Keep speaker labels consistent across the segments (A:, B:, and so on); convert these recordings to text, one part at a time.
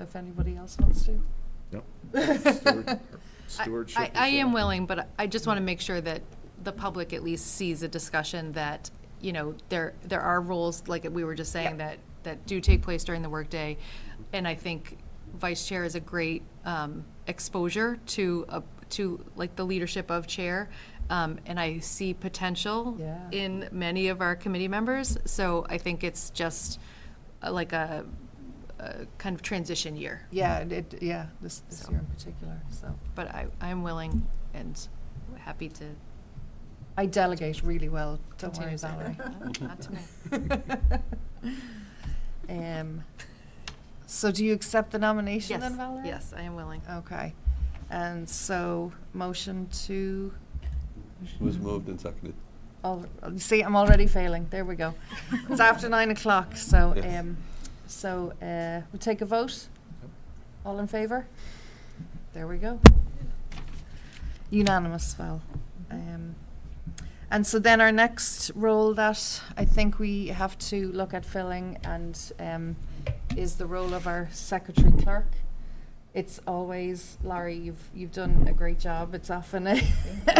A: if anybody else wants to.
B: No.
A: I-
B: Stewardship.
C: I, I am willing, but I just want to make sure that the public at least sees a discussion that, you know, there, there are rules, like we were just saying, that, that do take place during the workday. And I think vice chair is a great um, exposure to, a- to like the leadership of chair. Um, And I see potential
A: Yeah.
C: in many of our committee members. So I think it's just uh, like a, a kind of transition year.
A: Yeah, it- it, yeah, this, this
C: So.
A: year in particular, so.
C: But I, I'm willing and happy to
A: I delegate really well, don't worry,
C: Continue, Valerie.
A: Valerie.
C: Not to me.
A: Um, So do you accept the nomination
C: Yes,
A: then, Valerie?
C: yes, I am willing.
A: Okay, and so, motion to,
D: Was moved and seconded.
A: all- see, I'm already failing, there we go. It's after nine o'clock, so,
D: Yes.
A: um, so, uh, we take a vote? All in favor? There we go. Unanimous, Val. Um, and so then our next role that I think we have to look at filling and um, is the role of our secretary clerk. It's always Laurie. You've you've done a great job. It's often a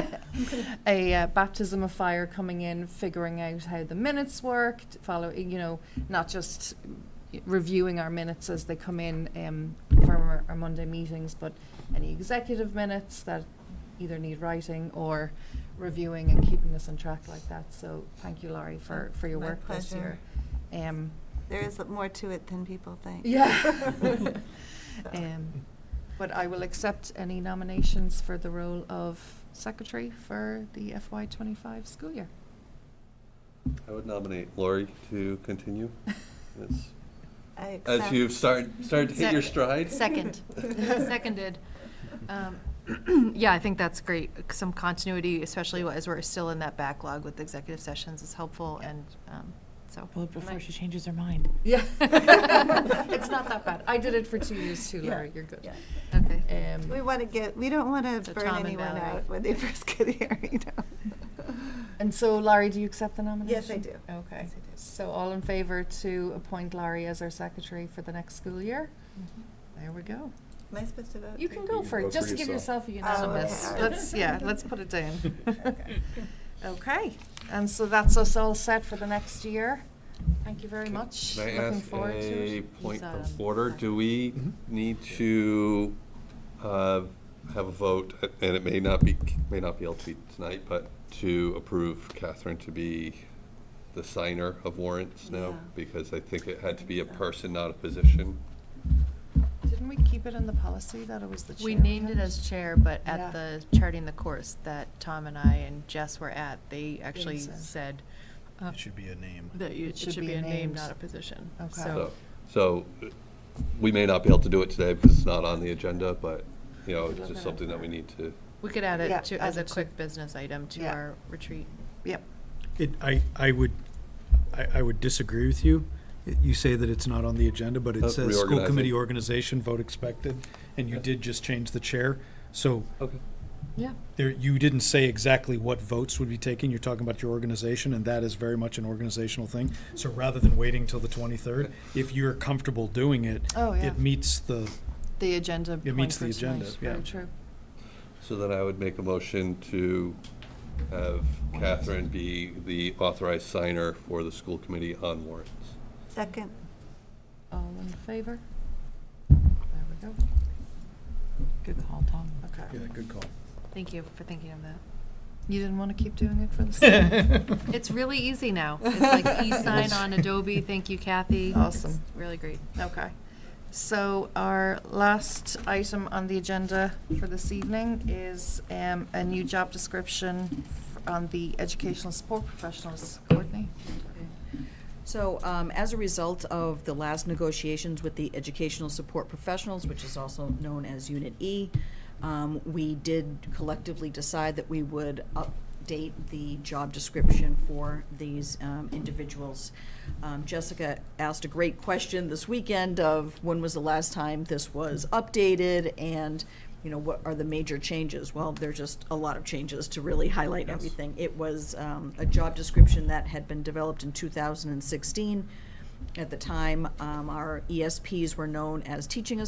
A: a uh, baptism of fire coming in, figuring out how the minutes worked. Follow, you know, not just reviewing our minutes as they come in um, from our, our Monday meetings, but any executive minutes that either need writing or reviewing and keeping us on track like that. So thank you, Laurie, for for your
E: My
A: work this year.
E: pleasure.
A: Um,
E: There is more to it than people think.
A: yeah.
E: So.
A: Um, But I will accept any nominations for the role of secretary for the FY twenty-five school year.
D: I would nominate Lori to continue. As-
E: I
D: As
E: accept.
D: you've started, started to hit your
C: Sec-
D: stride.
C: Second, seconded. Um, Yeah, I think that's great. Some continuity, especially as we're still in that backlog with executive sessions is helpful and, um, so.
F: Well, before she changes her mind.
A: Yeah. It's not that bad. I did it for two years too,
E: Yeah.
A: Laura. You're good.
E: Yeah.
C: Okay.
A: Um,
E: We want to get, we don't want
C: So
E: to burn
C: Tom and
E: anyone
C: Valerie.
E: out when they first get here, you know?
A: And so Laurie, do you accept the nomination?
E: Yes, I do.
A: Okay.
E: Yes, I do.
A: So all in favor to appoint Laurie as our secretary for the next school year?
E: Mm-hmm.
A: There we go.
E: Am I supposed to vote?
A: You can go for it. Just give yourself a
C: Oh,
A: unanimous.
E: okay.
A: Let's, yeah, let's put it down.
E: Okay.
A: Okay, and so that's us all set for the next year. Thank you very much.
D: Can I
A: Looking
D: ask
A: forward to
D: a
A: it.
D: point
C: He's,
D: of
C: um,
D: order?
C: sorry.
D: Do we need to uh, have a vote, and it may not be, may not be able to be tonight, but to approve Catherine to be the signer of warrants now?
E: Yeah.
D: Because I think it had to be a person, not a position.
A: Didn't we keep it in the policy that it was the chair?
C: We named it
A: had?
C: as chair, but
A: Yeah.
C: at the charting the course that Tom and I and Jess were at, they actually
A: so.
C: said uh,
G: It should be a name.
C: that you- it should be a name,
A: named.
C: not a position.
A: Okay.
C: So
D: So, so uh, we may not be able to do it today because it's not on the agenda, but, you know,
A: Good luck with
D: it's just
A: that.
D: something that we need to.
C: we could add
A: Yeah,
C: it to,
A: add
C: as a
A: it to-
C: quick business item to
A: Yeah.
C: our retreat.
A: Yep,
G: It, I, I would, I, I would disagree with you. You say that it's not on the agenda, but
D: Uh,
G: it says school
D: reorganizing.
G: committee organization, vote expected, and you did just change the chair. So
D: Okay.
C: Yeah.
G: there, you didn't say exactly what votes would be taken. You're talking about your organization, and that is very much an organizational thing. So rather than waiting till the twenty-third, if you're comfortable doing it,
A: Oh, yeah.
G: it meets the,
A: the agenda.
G: It meets
A: point
G: the
A: for tonight.
G: agenda, yeah.
A: Very true.
D: So then I would make a motion to have Catherine be the authorized signer for the school committee on warrants.
E: Second,
A: All in favor? There we go.
F: Good call, Tom.
G: yeah,
A: Okay.
G: good call.
C: Thank you for thinking of that.
A: You didn't want to keep doing it for the same?
C: It's really easy now. It's like e-sign on Adobe. Thank you, Kathy. It's
A: Awesome.
C: Really great.
A: Okay. So our last item on the agenda for this evening is um, a new job description f- on the educational support professionals. Courtney?
H: So um, as a result of the last negotiations with the Educational Support Professionals, which is also known as Unit E, um, we did collectively decide that we would update the job description for these um, individuals. Um, Jessica asked a great question this weekend of when was the last time this was updated and, you know, what are the major changes? Well, there's just a lot of changes to really highlight everything. It was um, a job description that had been developed in 2016. At the time, um, our ESPs E were known as teaching